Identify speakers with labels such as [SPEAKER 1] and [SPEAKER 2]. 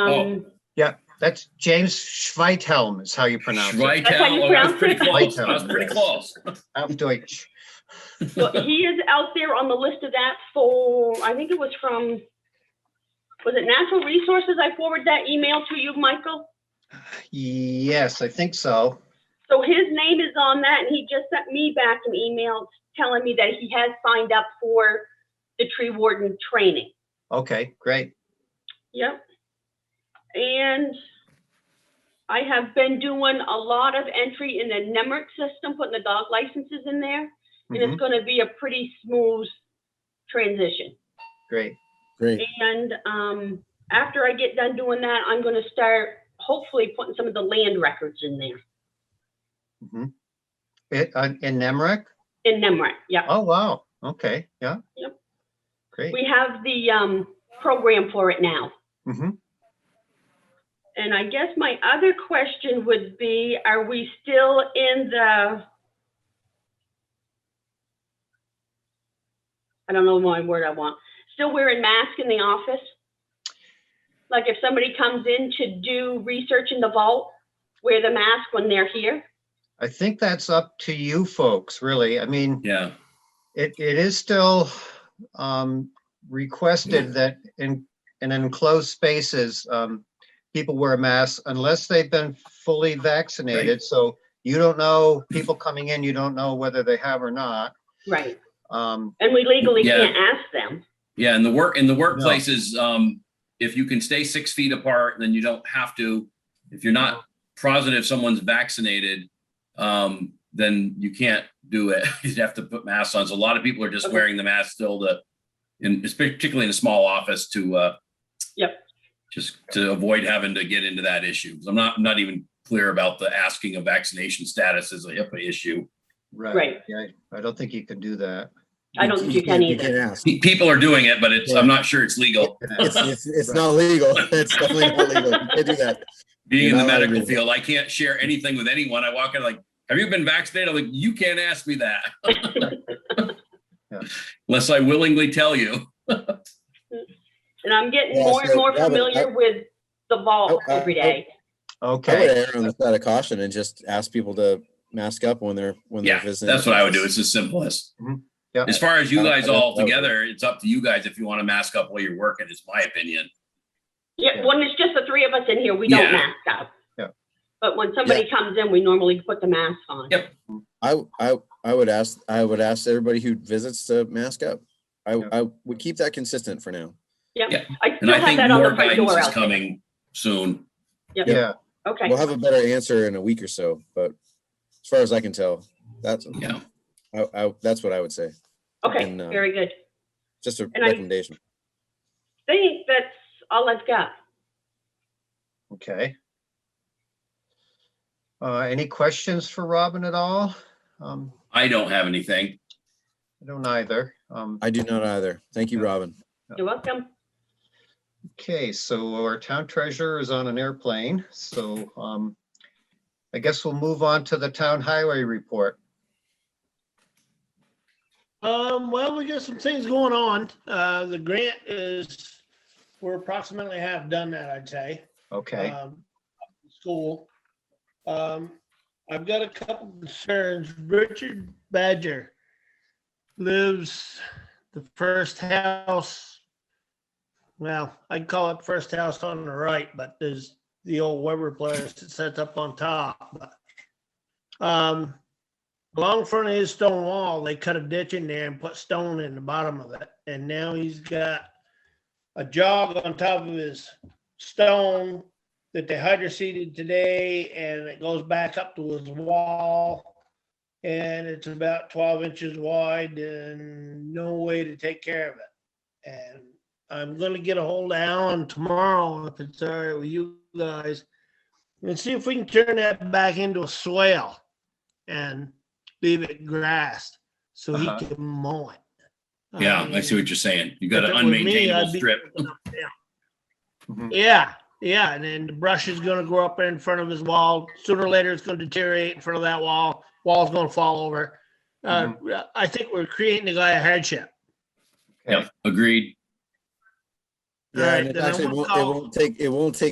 [SPEAKER 1] Um,
[SPEAKER 2] That's James Schweithelm is how you pronounce it.
[SPEAKER 1] That's how you
[SPEAKER 3] Schweikal, oh, I was
[SPEAKER 1] pronounce
[SPEAKER 3] pretty
[SPEAKER 1] it?
[SPEAKER 3] close, I was pretty
[SPEAKER 2] Schweikal.
[SPEAKER 3] close.
[SPEAKER 2] Auf Deutsch.
[SPEAKER 1] well, he is out there on the list of that for, I think it was from, was it Natural Resources? I forwarded that email to you, Michael.
[SPEAKER 2] Yes, I think so.
[SPEAKER 1] So his name is on that and he just sent me back an email telling me that he has signed up for the tree warden training.
[SPEAKER 2] Okay, great.
[SPEAKER 1] Yep. And I have been doing a lot of entry in the NEMRIC system, putting the dog licenses in there. And
[SPEAKER 2] Mhm,
[SPEAKER 1] it's gonna be a pretty smooth transition.
[SPEAKER 2] Great.
[SPEAKER 4] Great.
[SPEAKER 1] And um, after I get done doing that, I'm gonna start hopefully putting some of the land records in there,
[SPEAKER 2] mhm. It- uh, In Nemrick?
[SPEAKER 1] in NEMRIC, yeah.
[SPEAKER 2] Oh, wow. Okay, yeah.
[SPEAKER 1] Yep.
[SPEAKER 2] Great.
[SPEAKER 1] We have the um, program for it now.
[SPEAKER 2] Mhm.
[SPEAKER 1] And I guess my other question would be, are we still in the? I don't know my word I want. Still wearing mask in the office? Like if somebody comes in to do research in the vault, wear the mask when they're here?
[SPEAKER 2] I think that's up to you folks, really. I mean,
[SPEAKER 3] Yeah,
[SPEAKER 2] it, it is still um, requested that in, in enclosed spaces, um, people wear masks unless they've been fully vaccinated. So you don't know, people coming in, you don't know whether they have or not.
[SPEAKER 1] Right.
[SPEAKER 2] Um,
[SPEAKER 1] And we legally
[SPEAKER 3] Yeah.
[SPEAKER 1] can't ask them.
[SPEAKER 3] yeah, in the work, in the workplaces, um, if you can stay six feet apart, then you don't have to. If you're not positive someone's vaccinated, um, then you can't do it. You'd have to put masks on. So a lot of people are just
[SPEAKER 1] Okay.
[SPEAKER 3] wearing the mask still to, in, particularly in a small office to, uh,
[SPEAKER 1] Yep.
[SPEAKER 3] just to avoid having to get into that issue. 'Cause I'm not, I'm not even clear about the asking of vaccination status as a HIPAA issue.
[SPEAKER 1] Right.
[SPEAKER 2] right. Yeah, I don't think you can do that.
[SPEAKER 1] I don't think you can either.
[SPEAKER 4] can't ask.
[SPEAKER 3] Pe- People are doing it, but it's, I'm not sure it's legal.
[SPEAKER 4] It's, it's, it's not legal. It's definitely not legal. You can't do that.
[SPEAKER 3] Being in the
[SPEAKER 4] Yeah, I agree.
[SPEAKER 3] medical field, I can't share anything with anyone. I walk in like, have you been vaccinated? I'm like, you can't ask me that. Unless I willingly tell you.
[SPEAKER 1] And I'm getting
[SPEAKER 4] Yeah,
[SPEAKER 1] more and
[SPEAKER 4] so
[SPEAKER 1] more
[SPEAKER 4] that would-
[SPEAKER 1] familiar with the vault
[SPEAKER 4] Oh, uh,
[SPEAKER 1] every day.
[SPEAKER 4] I would
[SPEAKER 2] Okay,
[SPEAKER 4] err on the side of caution and just ask people to mask up when they're, when they're
[SPEAKER 3] Yeah,
[SPEAKER 4] visiting.
[SPEAKER 3] that's what I would do. It's the simplest.
[SPEAKER 2] Mhm. Yeah.
[SPEAKER 3] As far as you
[SPEAKER 4] I- I
[SPEAKER 3] guys
[SPEAKER 4] don't
[SPEAKER 3] all
[SPEAKER 4] know.
[SPEAKER 3] together, it's up to you guys if you want to mask up while you're working, is my opinion.
[SPEAKER 1] Yeah,
[SPEAKER 2] Yeah.
[SPEAKER 1] when it's just the three of us in here, we don't
[SPEAKER 3] Yeah.
[SPEAKER 1] mask up.
[SPEAKER 2] Yeah.
[SPEAKER 1] But when somebody comes in, we normally put the mask on.
[SPEAKER 3] Yep.
[SPEAKER 4] I, I, I would ask, I would ask everybody who visits to mask up. I,
[SPEAKER 2] Yeah.
[SPEAKER 4] I would keep that consistent for now.
[SPEAKER 1] I
[SPEAKER 3] And
[SPEAKER 1] still
[SPEAKER 3] I
[SPEAKER 1] have
[SPEAKER 3] think
[SPEAKER 1] that on
[SPEAKER 3] more
[SPEAKER 1] the front
[SPEAKER 3] guidance
[SPEAKER 1] door
[SPEAKER 3] is
[SPEAKER 1] out there.
[SPEAKER 3] coming soon.
[SPEAKER 2] yeah,
[SPEAKER 1] Okay,
[SPEAKER 4] We'll have a better answer in a week or so, but as far as I can tell, that's,
[SPEAKER 3] Yeah.
[SPEAKER 4] I, I, that's what I would say.
[SPEAKER 1] okay,
[SPEAKER 4] and, uh,
[SPEAKER 1] very good.
[SPEAKER 4] Just a
[SPEAKER 1] And I-
[SPEAKER 4] recommendation.
[SPEAKER 1] Think that's all I've got.
[SPEAKER 2] okay. Uh, any questions for Robin at all? Um,
[SPEAKER 3] I don't have anything.
[SPEAKER 2] I don't either. Um,
[SPEAKER 4] I do not either. Thank you,
[SPEAKER 2] Yeah.
[SPEAKER 4] Robin.
[SPEAKER 1] You're welcome.
[SPEAKER 2] Okay, so our town treasurer is on an airplane, so um, I guess we'll move on to the town highway report.
[SPEAKER 5] Um, well, we got some things going on. Uh, the grant is, we're approximately half done that, I'd say.
[SPEAKER 2] Okay,
[SPEAKER 5] Um, School. Um, I've got a couple concerns. Richard Badger lives the first house. Well, I'd call it first house on the right, but there's the old Weber place that sets up on top. but, Um, Along front of his stone wall, they cut a ditch in there and put stone in the bottom of it, and now he's got a jog on top of his stone that they hydroseeded today, and it goes back up to his wall. And it's about twelve inches wide and no way to take care of it. And I'm gonna get a hold of Alan tomorrow, if it's all right with you guys, and see if we can turn that back into a swale and leave it grassed so he
[SPEAKER 2] Uh-huh.
[SPEAKER 5] can mow it.
[SPEAKER 3] Yeah, I
[SPEAKER 5] mean,
[SPEAKER 3] see what you're saying. You got
[SPEAKER 5] if
[SPEAKER 3] an
[SPEAKER 5] it were me,
[SPEAKER 3] unmaintainable
[SPEAKER 5] I'd be-
[SPEAKER 3] strip.
[SPEAKER 4] Mm-hmm.
[SPEAKER 2] Mhm.
[SPEAKER 5] Yeah, yeah, and then the brush is gonna grow up in front of his wall. Sooner or later, it's gonna deteriorate in front of that wall. Wall's gonna fall over. Uh,
[SPEAKER 4] Mm-hmm.
[SPEAKER 5] I think we're creating the guy a hardship.
[SPEAKER 3] Yep, agreed.
[SPEAKER 4] Yeah,
[SPEAKER 5] Alright,
[SPEAKER 4] and it
[SPEAKER 5] then I
[SPEAKER 4] actually
[SPEAKER 5] will
[SPEAKER 4] won't, it
[SPEAKER 5] call-
[SPEAKER 4] won't take, it won't take